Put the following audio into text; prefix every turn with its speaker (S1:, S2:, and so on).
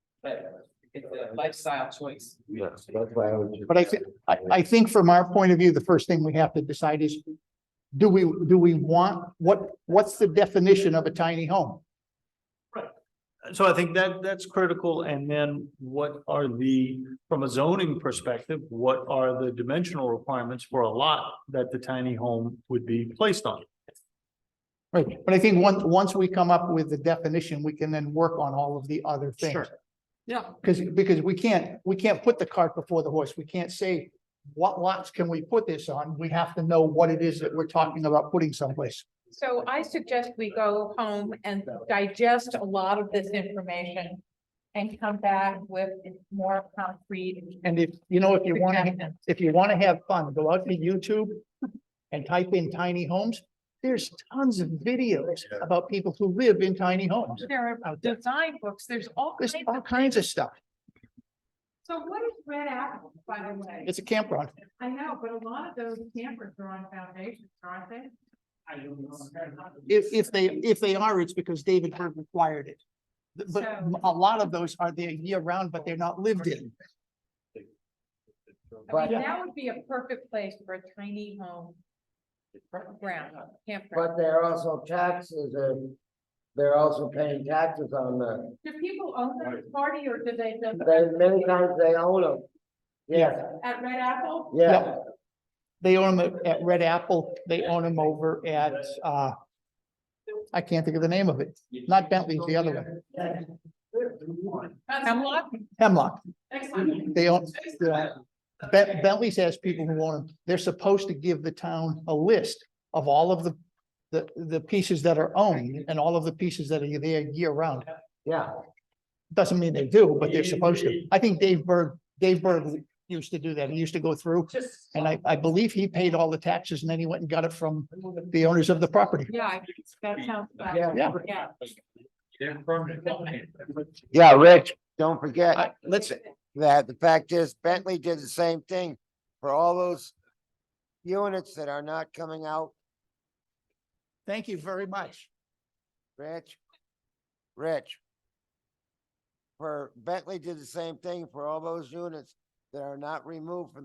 S1: but it's a lifestyle choice.
S2: Yes, that's why I was. just-
S3: But I thi- I, I think from our point of view, the first thing we have to decide is, do we, do we want, what, what's the definition of a tiny home?
S4: So I think that that's critical. And then what are the, from a zoning perspective, what are the dimensional requirements for a lot that the tiny home would be placed on?
S3: Right, but I think once, once we come up with the definition, we can then work on all of the other
S4: Sure.
S3: things.
S1: Yeah.
S3: Because, because we can't, we can't put the cart before the horse. We can't say, what lots can we put this on? We have to know what it is that we're talking about putting someplace.
S5: So I suggest we go home and digest a lot of this information and come back with more concrete.
S3: And if, you know, if you want to,
S5: suggestions.
S3: if you want to have fun, go out to YouTube and type in tiny homes. There's tons of videos about people who live in tiny homes.
S5: There are
S3: out there.
S5: design books, there's all
S3: There's
S5: kinds of.
S3: all kinds of stuff.
S5: So what is Red Apple, by the way?
S3: It's a campground.
S5: I know, but a lot of those campers are on foundations, aren't they?
S3: If, if they, if they are, it's because David Berg required it. Th- But
S5: So-
S3: a lot of those are there year round, but they're not lived in.
S5: I
S2: But-
S5: mean, that would be a perfect place for a tiny home. Ground, campground.
S2: But they're also taxes and they're also paying taxes on the,
S5: Do people own that party or do they just
S2: they, many times they own them. Yeah,
S5: at Red Apple?
S2: yeah,
S3: They own them at Red Apple. They own them over at, uh, I can't think of the name of it. Not Bentley's, the other one.
S5: Hemlock?
S3: Hemlock.
S5: Excellent.
S3: They own, yeah. Ben- Bentley's has people who own them. They're supposed to give the town a list of all of the, the, the pieces that are owned and all of the pieces that are there year round.
S2: yeah.
S3: Doesn't mean they do, but they're supposed to. I think Dave Berg, Dave Berg used to do that. He used to go through. And I, I believe he paid all the taxes and then he went and got it from the owners of the property.
S5: Yeah, I think that sounds. about-
S2: Yeah.
S3: Yeah.
S5: Yeah.
S4: They're permanent.
S2: Yeah, Rich, don't forget
S3: I- Let's,
S2: that the fact is Bentley did the same thing for all those units that are not coming out,
S3: thank you very much.
S2: Rich. Rich. For Bentley did the same thing for all those units that are not removed from